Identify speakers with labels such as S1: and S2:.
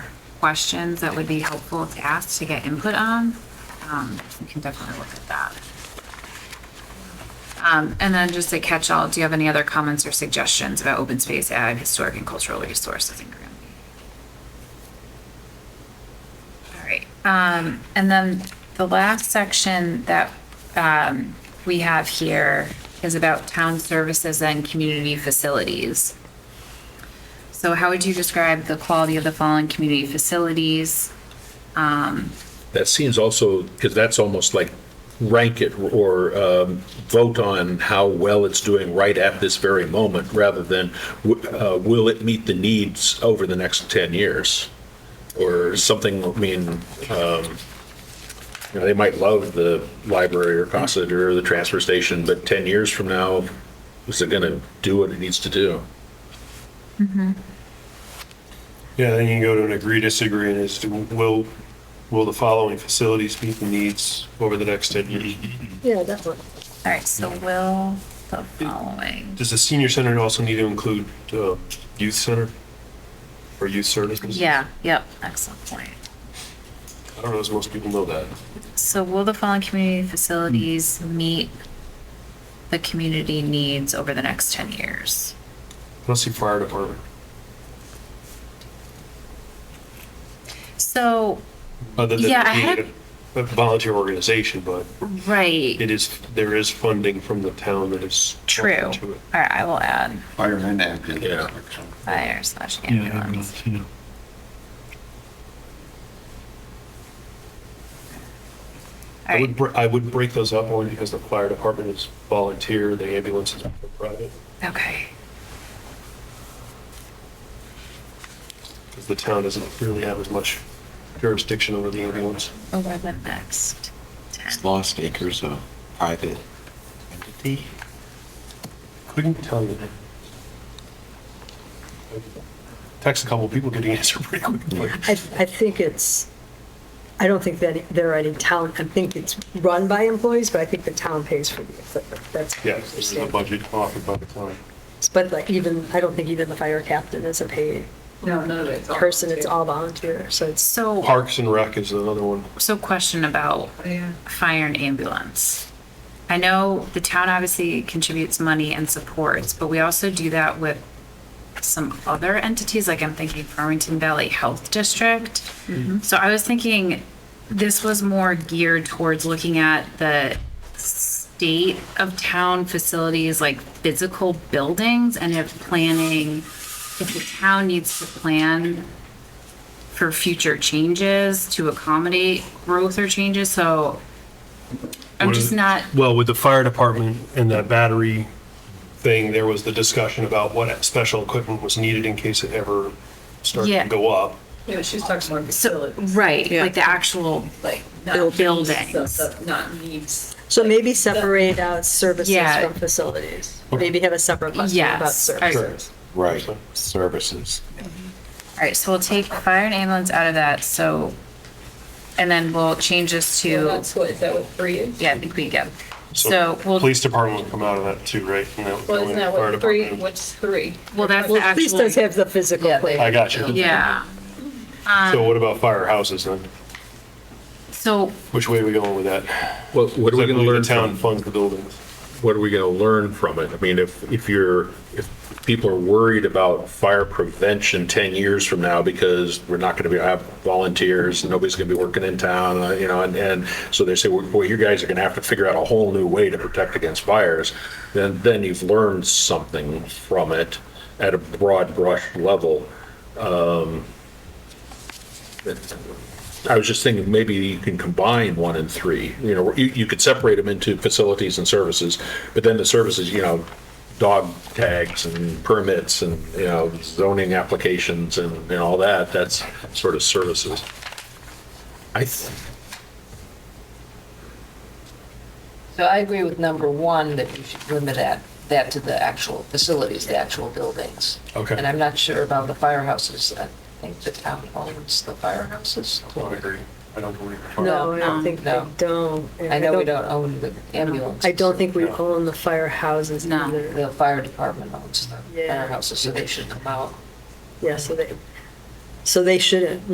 S1: questions that would be helpful to ask to get input on, um, we can definitely look at that. Um, and then just a catch-all, do you have any other comments or suggestions about open space, ag, historic and cultural resources in Granby? All right, um, and then the last section that, um, we have here is about town services and community facilities. So how would you describe the quality of the following community facilities?
S2: That seems also, because that's almost like rank it or um, vote on how well it's doing right at this very moment, rather than w- uh, will it meet the needs over the next 10 years? Or something, I mean, um, you know, they might love the library or Cossett or the transfer station, but 10 years from now, is it going to do what it needs to do?
S3: Yeah, then you can go to an agree, disagree, and it's, will, will the following facilities meet the needs over the next ten years?
S4: Yeah, that one.
S1: All right, so will the following,
S3: Does the senior center also need to include, uh, youth center? Or youth services?
S1: yeah, yep, excellent point.
S3: I don't know if most people know that.
S1: So will the following community facilities meet the community needs over the next ten years?
S3: Let's see fire department.
S1: So,
S3: Other than
S1: Yeah, I
S3: being
S1: had-
S3: a a volunteer organization, but
S1: right,
S3: it is, there is funding from the town that is.
S1: true. All
S3: to it.
S1: right, I will add
S5: Fire and ambulance.
S2: Yeah.
S1: fire slash
S6: Yeah,
S1: ambulance.
S6: ambulance, yeah.
S1: All
S3: I would,
S1: right,
S3: br- I would break those up only because the fire department is volunteer, the ambulance is private.
S1: okay,
S3: because the town doesn't really have as much jurisdiction over the ambulance.
S1: eleven next, ten.
S5: It's lost acres of private entity.
S3: Couldn't tell you. Text a couple people getting answered pretty quickly.
S4: I, I think it's, I don't think that there are any town, I think it's run by employees, but I think the town pays for the equipment. That's. my
S3: Yes, this is a
S4: understanding.
S3: budget offered by the town.
S4: But like even, I don't think even the fire captain is a paid
S1: No, none of it's.
S4: person, it's all volunteer, so it's,
S1: So.
S3: Parks and Rec is another one.
S1: So question about fire and ambulance. I know the town obviously contributes money and supports, but we also do that with some other entities, like I'm thinking Farmington Valley Health District. So I was thinking this was more geared towards looking at the state of town facilities, like physical buildings and if planning, if the town needs to plan for future changes to accommodate growth or changes, so I'm
S3: What is
S1: just
S3: it?
S1: not,
S3: Well, with the fire department and that battery thing, there was the discussion about what special equipment was needed in case it ever started
S1: Yeah.
S3: to go up.
S7: Yeah, she's talking more
S1: so,
S7: facilities,
S1: right, like the actual,
S7: like
S1: Buil-
S7: not
S1: buildings.
S7: buildings, so- so not needs.
S4: so maybe separate out services
S1: Yeah.
S4: from facilities. Maybe have a separate question
S1: Yes,
S4: about
S1: I-
S4: services.
S5: Right, services.
S1: all right, so we'll take fire and ambulance out of that, so, and then we'll change this
S7: So
S1: to,
S7: That's what, is that what three is?
S1: yeah, I think we get, so we'll,
S3: Police department would come out of that too, right? And that would go
S7: Well, isn't
S3: into
S7: that
S3: fire
S7: what three,
S3: department.
S7: what's three?
S1: well, that's the
S4: Well, please
S1: actual.
S4: does have the physical
S7: Yeah, they-
S4: plan.
S3: I got you.
S1: Yeah,
S3: So what about firehouses then?
S1: so
S3: Which way are we going with that?
S2: Well, What are we
S3: Because I
S2: going to
S3: believe
S2: learn
S3: the town
S2: from?
S3: funds the buildings.
S2: what are we going to learn from it? I mean, if, if you're, if people are worried about fire prevention 10 years from now because we're not going to be, have volunteers, and nobody's going to be working in town, uh, you know, and, and so they say, well, boy, you guys are going to have to figure out a whole new way to protect against fires, then, then you've learned something from it at a broad brush level. um, I was just thinking, maybe you can combine one and three, you know, you, you could separate them into facilities and services, but then the services, you know, dog tags and permits and, you know, zoning applications and, and all that, that's sort of services. I, th-
S8: So I agree with number one, that you should limit that, that to the actual facilities, the actual buildings.
S3: Okay.
S8: And I'm not sure about the firehouses. I think the town owns the firehouses.
S3: I agree. I don't believe.
S4: No, I don't
S8: No,
S4: think they
S8: no.
S4: don't.
S8: I know we don't own the ambulance.
S4: I don't think we
S3: No.
S4: own the firehouses
S1: No.
S4: either.
S8: The fire department owns the
S4: Yeah.
S8: firehouses, so they should come out.
S4: Yeah, so they, so they shouldn't,